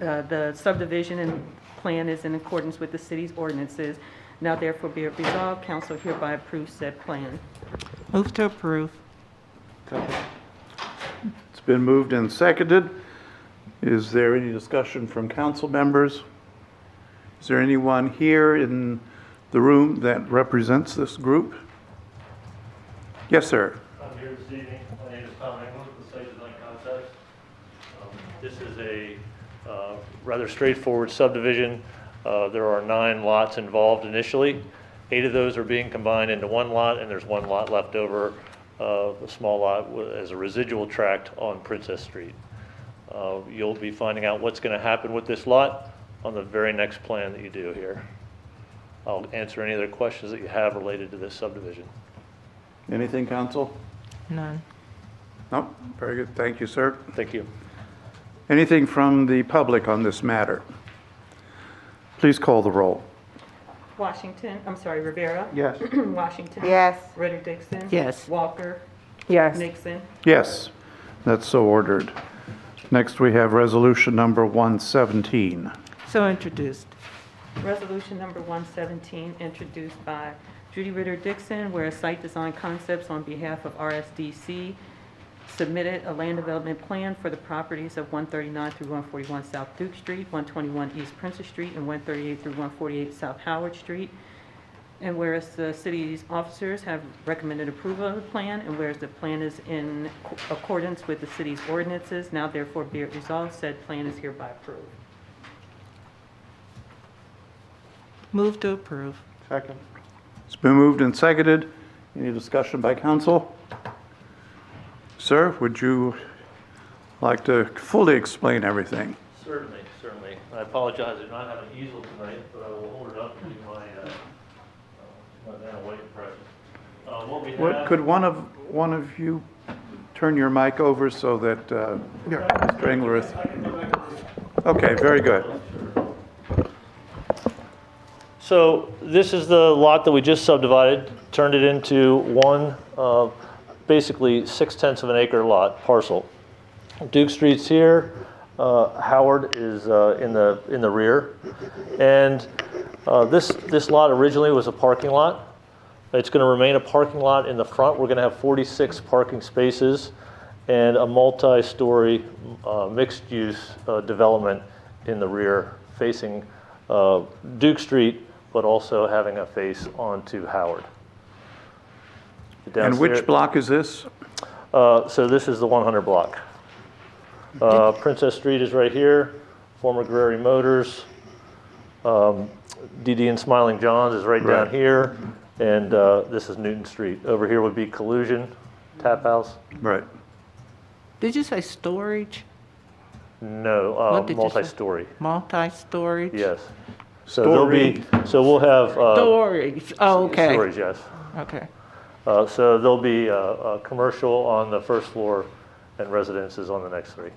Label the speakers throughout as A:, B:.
A: uh, the subdivision and plan is in accordance with the city's ordinances. Now therefore be it resolved, council hereby approves said plan.
B: Move to approve.
C: It's been moved and seconded. Is there any discussion from council members? Is there anyone here in the room that represents this group? Yes, sir.
D: I'm here this evening. My name is Tom Engel, the site design concept. Um, This is a uh, rather straightforward subdivision. Uh, There are nine lots involved initially. Eight of those are being combined into one lot, and there's one lot left over, uh, a small lot wa- as a residual tract on Princess Street. Uh, You'll be finding out what's going to happen with this lot on the very next plan that you do here. I'll answer any other questions that you have related to this subdivision.
C: Anything, council?
B: None.
C: No? Very good. Thank you, sir.
D: Thank you.
C: Anything from the public on this matter? Please call the roll.
A: Washington, I'm sorry, Rivera.
C: Yes.
A: Washington.
E: Yes.
A: Ritter Dixon.
B: Yes.
A: Walker.
E: Yes.
A: Nixon.
C: Yes, that's so ordered. Next, we have resolution number 117.
B: So introduced.
A: Resolution number 117, introduced by Judy Ritter Dixon, where Site Design Concepts on behalf of RSDC submitted a land development plan for the properties of 139 through 141 South Duke Street, 121 East Princess Street, and 138 through 148 South Howard Street. And whereas the city's officers have recommended approval of the plan, and whereas the plan is in accordance with the city's ordinances, now therefore be it resolved, said plan is hereby approved.
B: Move to approve.
C: Second. It's been moved and seconded. Any discussion by council? Sir, would you like to fully explain everything?
D: Certainly, certainly. I apologize, I do not have an easel tonight, but I will hold it up and do my, uh, uh, my Vanna White impression. Uh, What we
C: What-
D: have,
C: Could one of, one of you turn your mic over so that uh, Mr. Engelrith? Okay, very good.
D: so this is the lot that we just subdivided, turned it into one, uh, basically six tenths of an acre lot parcel. Duke Street's here, uh, Howard is uh, in the, in the rear. And uh, this, this lot originally was a parking lot. It's going to remain a parking lot in the front. We're going to have 46 parking spaces and a multi-story uh, mixed-use uh, development in the rear facing uh, Duke Street, but also having a face onto Howard.
C: And
D: Downstairs-
C: which block is this?
D: uh, So this is the 100 block. Uh, Princess Street is right here, former Guerrero Motors. Um, DD and Smiling John's is right down
C: Right.
D: here, and uh, this is Newton Street. Over here would be Collusion Tap House.
C: Right.
B: Did you say storage?
D: No, uh,
B: What did you say?
D: multi-story,
B: Multi-storage?
D: yes. So there'll be, so we'll have. uh,
B: Storage, oh, okay.
D: Storage, yes.
B: Okay.
D: Uh, So there'll be uh, uh commercial on the first floor and residences on the next three.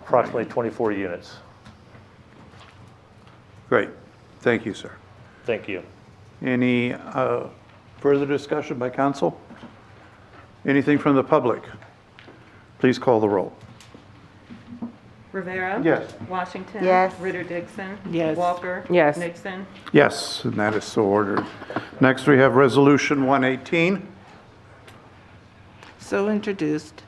D: Approximately 24 units.
C: Great. Thank you, sir.
D: Thank you.
C: Any uh, further discussion by council? Anything from the public? Please call the roll.
A: Rivera.
C: Yes.
A: Washington.
E: Yes.
A: Ritter Dixon.
B: Yes.
A: Walker.
E: Yes.
A: Nixon.
C: Yes, and that is so ordered. Next, we have Resolution 118.
B: So introduced.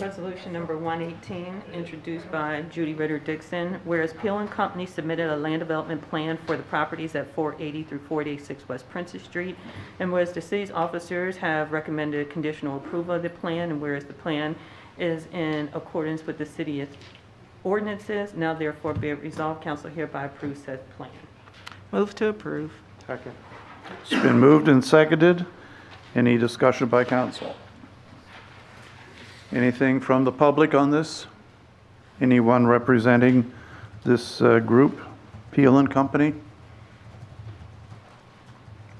A: Resolution number 118, introduced by Judy Ritter Dixon. Whereas Peel and Company submitted a land development plan for the properties at 480 through 486 West Princess Street, and whereas the city's officers have recommended conditional approval of the plan, and whereas the plan is in accordance with the city's ordinances, now therefore be it resolved, council hereby approves said plan.
B: Move to approve.
C: It's been moved and seconded. Any discussion by council? Anything from the public on this? Anyone representing this uh, group, Peel and Company?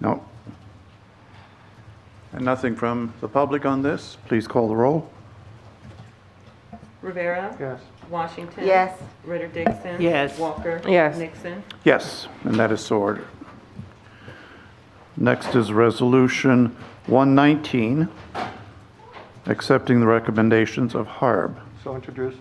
C: No. And nothing from the public on this? Please call the roll.
A: Rivera.
C: Yes.
A: Washington.
E: Yes.
A: Ritter Dixon.
B: Yes.
A: Walker.
E: Yes.
A: Nixon.
C: Yes, and that is so ordered. Next is Resolution 119, accepting the recommendations of Harb.
F: So introduced.